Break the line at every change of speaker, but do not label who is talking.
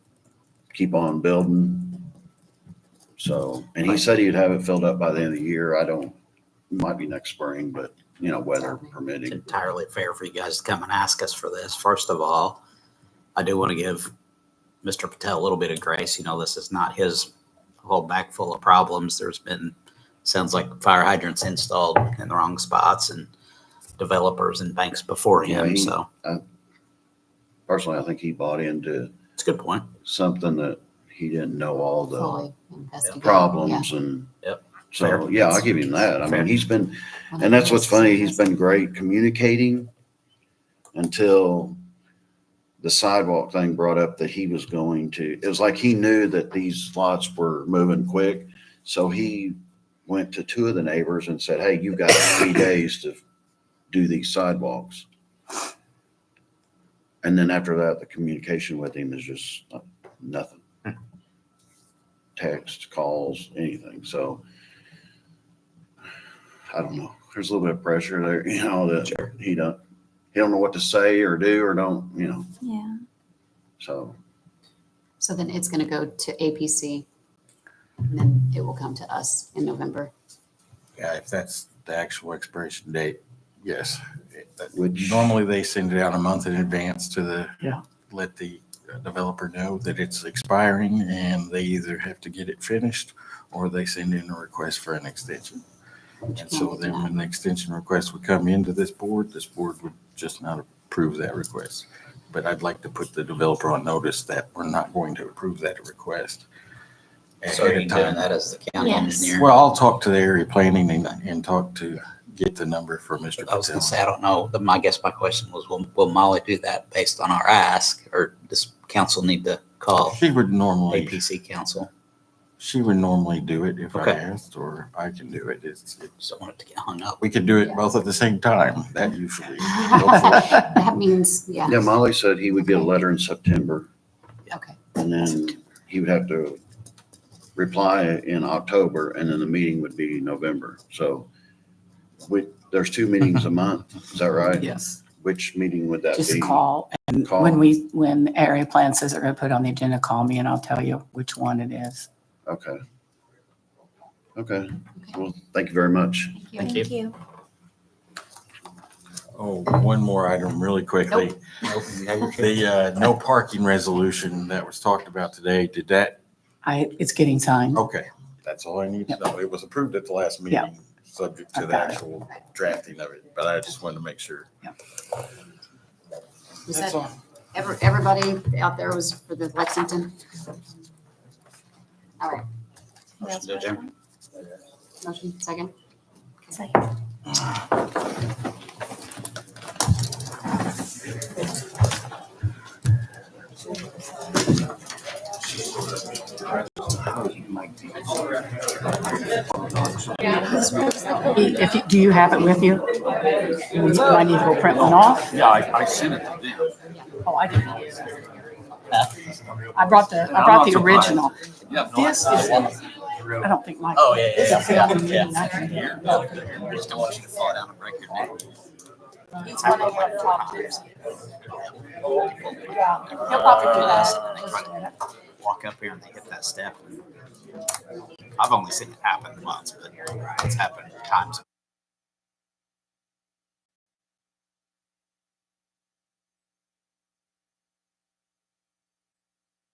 keep on building. So, and he said he'd have it filled up by the end of the year. I don't, might be next spring, but you know, weather
It's
permitting.
entirely fair for you guys to come and ask us for this. First of all, I do want to give Mr. Patel a little bit of grace. You know, this is not his whole back full of problems. There's been, sounds like fire hydrants installed in the wrong spots and developers and banks before
Yeah,
him.
he-
So
Personally, I think he bought into
it's a good point.
something that he didn't know all the
fully investigate.
problems and.
Yep.
So, yeah, I'll give him that. I
Fair.
mean, he's been,
Yeah.
And that's what's funny, he's been great communicating until the sidewalk thing brought up that he was going to, it was like he knew that these lots were moving quick. So he went to two of the neighbors and said, hey, you've got three days to do these sidewalks. And then after that, the communication with him is just uh, nothing. Text, calls, anything. So I don't know. There's a little bit of pressure there, you know, that
Sure.
he don't, he don't know what to say or do or don't, you know,
Yeah.
so.
So then it's gonna go to APC, and then it will come to us in November.
Yeah, if that's the actual expiration date, yes. It- that-
Which-
Normally, they send it out a month in advance to the.
Yeah.
Let the uh, developer know that it's expiring and they either have to get it finished or they send in a request for an extension. And so then when the extension request would come into this board, this board would just not approve that request. But I'd like to put the developer on notice that we're not going to approve that request.
So
ahead
you're
of time.
doing that as the county
Yes.
engineer.
Well, I'll talk to the area planning and, and talk to, get the number for Mr.
I was gonna
Patel.
say, I don't know. The- My guess, my question was, will, will Molly do that based on our ask or does council need to call
She would normally,
APC council?
she would normally do it if I
Okay.
asked, or I can do it. It's, it-
Just don't want it to get hung up.
we could do it
Yeah.
both at the same time. That usually.
That means, yeah,
Yeah, Molly said he would get a letter in September
okay,
and then he would have to reply in October and then the meeting would be November. So we, there's two meetings a month, is that right?
Yes,
Which meeting would that
just
be?
call. And
Call.
when we, when the area plan says they're going to put it on the agenda, call me and I'll tell you which one it is.
Okay. Okay, well, thank you very much.
thank you.
Thank you.
Thank you.
Oh, one more item really quickly.
Oh,
The, uh, no parking resolution that was talked about today, did that,
I, it's getting signed.
Oh,
okay, that's all I need to know. It was approved at the last
Yeah.
meeting, subject to
I
the
got it.
actual drafting of it, but I just wanted to make sure.
Was
That's
that,
all.
every- everybody out there was for the Lexington? All right,
Motion to adjourn.
motion, second,
Second.
If, you- do you have it with you? Do I need to go print one off?
Yeah, I, I sent it to them.
Oh, I didn't. I brought the, I brought the original.
Yeah, no, I-
This is, I don't think Mike.
Oh, yeah, yeah,
This is
yeah,
the only
yeah.
meeting I can do.
Here,
I just don't want you to fall down and break your neck.
each one of them top.
He'll probably do that.
They try to walk up here and they hit that step. I've only seen it happen once, but it's happened times